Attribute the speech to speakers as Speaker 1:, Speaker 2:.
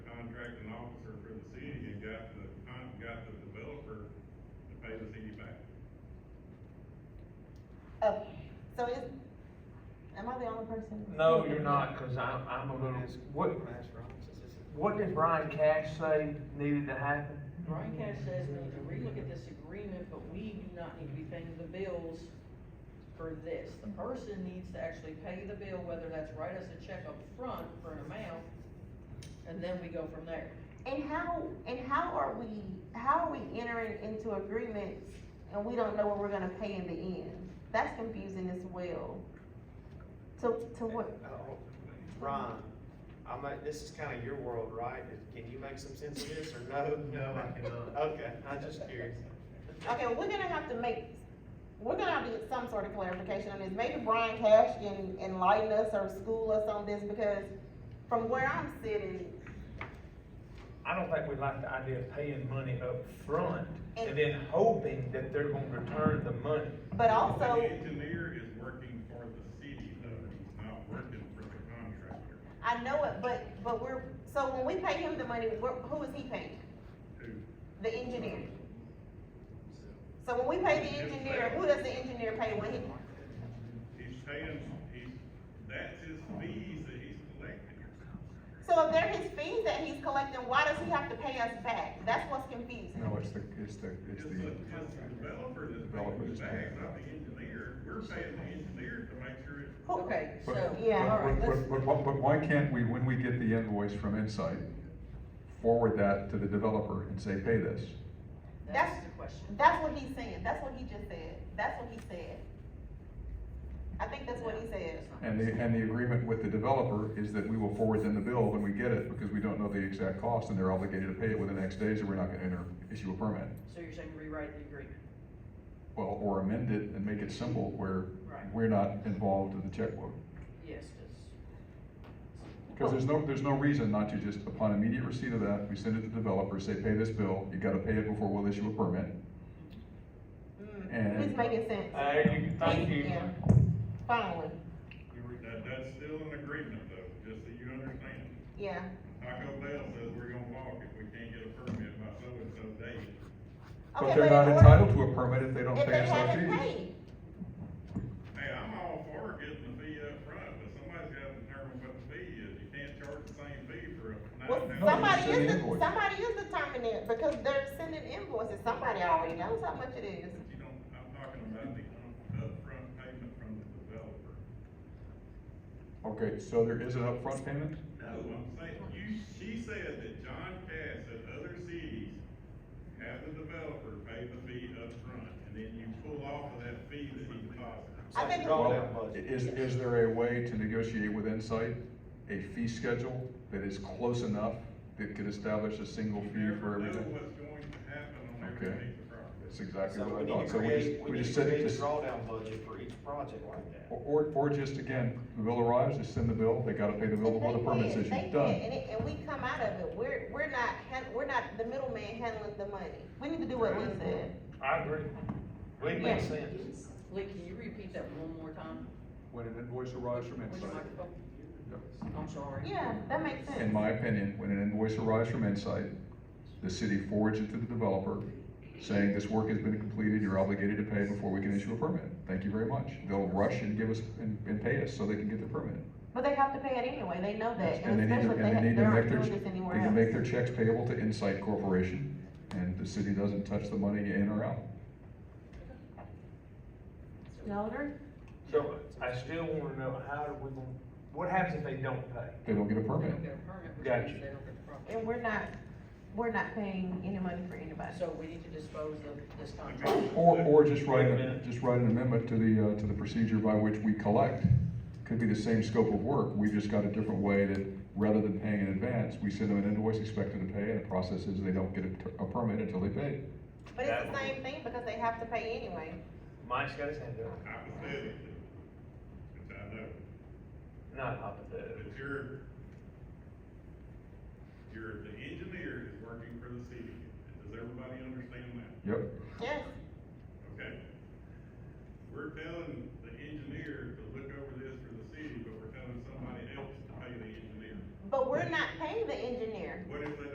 Speaker 1: pay the city back.
Speaker 2: Oh, so is, am I the only person?
Speaker 3: No, you're not, cause I'm, I'm a little, what, what did Brian Cash say needed to happen?
Speaker 4: Brian Cash says we need to relook at this agreement, but we do not need to be paying the bills for this. The person needs to actually pay the bill, whether that's write us a check up front for an amount, and then we go from there.
Speaker 2: And how, and how are we, how are we entering into agreements and we don't know what we're gonna pay in the end? That's confusing as well. To, to what,
Speaker 5: Oh, Ron, I'm, like- this is kinda your world, right? Can you make some sense of this or no?
Speaker 1: No, I cannot.
Speaker 5: Okay, I'm just curious.
Speaker 2: okay, we're gonna have to make, we're gonna have to get some sort of clarification on this. Maybe Brian Cash can enlighten us or school us on this because from where I'm sitting,
Speaker 3: I don't think we like the idea of paying money up front and then hoping that they're gonna return the money.
Speaker 2: but also.
Speaker 1: The engineer is working for the city, though, he's not working for the contractor,
Speaker 2: I know it, but, but we're, so when we pay him the money, we're, who is he paying?
Speaker 1: who.
Speaker 2: The engineer. So when we pay the engineer, who does the engineer pay when he?
Speaker 1: He's paying, he's, that's his fees that he's collecting.
Speaker 2: So if they're his fees that he's collecting, why does he have to pay us back? That's what's confusing.
Speaker 6: No, it's the, it's the,
Speaker 1: It's
Speaker 6: it's
Speaker 1: the,
Speaker 6: the,
Speaker 1: it's the developer that's
Speaker 6: Developer
Speaker 1: paying the
Speaker 6: that's
Speaker 1: bags,
Speaker 6: paying.
Speaker 1: not the engineer. We're paying the engineer to make sure it's.
Speaker 2: Who-
Speaker 4: Okay, so,
Speaker 6: but,
Speaker 2: Yeah.
Speaker 4: all
Speaker 6: but,
Speaker 4: right, let's,
Speaker 6: but, but, but but why can't we, when we get the invoice from Insight, forward that to the developer and say, pay this?
Speaker 4: that's the question.
Speaker 2: That's what he's saying, that's what he just said, that's what he said. I think that's what he said.
Speaker 6: And the, and the agreement with the developer is that we will forward them the bill when we get it, because we don't know the exact cost, and they're obligated to pay it within X days, or we're not gonna enter, issue a permit.
Speaker 4: So you're saying rewrite the agreement?
Speaker 6: Well, or amend it and make it simple where
Speaker 4: Right.
Speaker 6: we're not involved in the checkbook.
Speaker 4: Yes, cause.
Speaker 6: Because there's no, there's no reason not to just, upon immediate receipt of that, we send it to the developer, say, pay this bill, you gotta pay it before we'll issue a permit.
Speaker 2: Mm,
Speaker 6: And-
Speaker 2: It's making sense.
Speaker 3: There you, thank you.
Speaker 2: Yeah. Finally,
Speaker 1: That, that's still an agreement though, just so you understand.
Speaker 2: yeah.
Speaker 1: Taco Bell says we're gonna walk if we can't get a permit by so-and-so date.
Speaker 2: Okay,
Speaker 6: But they're not
Speaker 2: in order-
Speaker 6: entitled to a permit if they don't
Speaker 2: If
Speaker 6: pay
Speaker 2: they
Speaker 6: us our
Speaker 2: haven't
Speaker 6: fees.
Speaker 2: paid,
Speaker 1: Hey, I'm all for getting the fee up front, but somebody's gotta determine what the fee is. You can't charge the same fee for a
Speaker 2: well,
Speaker 1: nine
Speaker 6: No, some-
Speaker 1: thousand.
Speaker 2: somebody
Speaker 6: send
Speaker 2: is,
Speaker 6: the
Speaker 2: the-
Speaker 6: invoice.
Speaker 2: somebody is determining it, because they're sending invoices, somebody already knows how much it is.
Speaker 1: But you don't, I'm talking about the upfront payment from the developer.
Speaker 6: Okay, so there is an upfront payment?
Speaker 1: No, I'm saying, you, she said that John Cass and other cities have the developer pay the fee up front, and then you pull off of that fee that he deposited.
Speaker 2: I think-
Speaker 5: Draw down
Speaker 6: Well,
Speaker 5: budget.
Speaker 6: is, is there a way to negotiate with Insight a fee schedule that is close enough that could establish a single
Speaker 1: You
Speaker 6: fee for
Speaker 1: never Know
Speaker 6: everything?
Speaker 1: what's going to happen on every
Speaker 6: Okay.
Speaker 1: piece of property.
Speaker 6: That's exactly
Speaker 5: So
Speaker 6: what
Speaker 5: we
Speaker 6: I
Speaker 5: need
Speaker 6: thought,
Speaker 5: to
Speaker 6: so we
Speaker 5: create,
Speaker 6: just,
Speaker 5: we
Speaker 6: we
Speaker 5: need
Speaker 6: just
Speaker 5: to
Speaker 6: said it
Speaker 5: create a
Speaker 6: just.
Speaker 5: drawdown budget for each project like that.
Speaker 6: Or, or just again, the bill arrives, just send the bill, they gotta pay the bill before the permit's
Speaker 2: They did, they did,
Speaker 6: issued, done.
Speaker 2: And it, and we come out of it, we're, we're not, han- we're not the middleman handling the money. We need to do what Lee said.
Speaker 3: I agree. It makes sense.
Speaker 4: Lee, can you repeat that one more time?
Speaker 6: When an invoice arrives from
Speaker 4: With your
Speaker 6: Insight,
Speaker 4: microphone?
Speaker 6: Yep.
Speaker 4: I'm sorry.
Speaker 2: Yeah, that makes sense.
Speaker 6: in my opinion, when an invoice arrives from Insight, the city forwards it to the developer, saying this work has been completed, you're obligated to pay before we can issue a permit. Thank you very much. They'll rush and give us, and, and pay us so they can get the permit.
Speaker 2: But they have to pay it anyway, they know that,
Speaker 6: And
Speaker 2: and
Speaker 6: they need to,
Speaker 2: especially
Speaker 6: and they
Speaker 2: if
Speaker 6: need
Speaker 2: they
Speaker 6: to
Speaker 2: aren't
Speaker 6: make
Speaker 2: doing
Speaker 6: their,
Speaker 2: this anywhere
Speaker 6: they
Speaker 2: else.
Speaker 6: can make their checks payable to Insight Corporation, and the city doesn't touch the money in or out.
Speaker 2: Elder?
Speaker 3: So I still wanna know how do we, gonna- what happens if they don't pay?
Speaker 6: They don't get a
Speaker 4: They
Speaker 6: permit.
Speaker 4: don't get a permit, which
Speaker 3: Gotcha.
Speaker 4: means they don't get the property.
Speaker 2: And we're not, we're not paying any money for anybody.
Speaker 4: So we need to dispose of this contract.
Speaker 1: Okay.
Speaker 6: Or, or just write,
Speaker 3: Wait a
Speaker 6: a-
Speaker 3: minute.
Speaker 6: just write an amendment to the, uh, to the procedure by which we collect. Could be the same scope of work, we've just got a different way that, rather than paying in advance, we send them an invoice expected to pay, and the process is they don't get a, a permit until they pay.
Speaker 2: But it's the
Speaker 3: That-
Speaker 2: same thing, because they have to pay anyway.
Speaker 3: Mike's got his hand up.
Speaker 1: Hypothetically, which I know,
Speaker 3: Not hypothetical.
Speaker 1: but you're, you're, the engineer is working for the city. Does everybody understand that?
Speaker 6: Yep,
Speaker 2: Yes,
Speaker 1: Okay? We're telling the engineer to look over this for the city, but we're telling somebody else to pay the engineer.
Speaker 2: but we're not paying the engineer.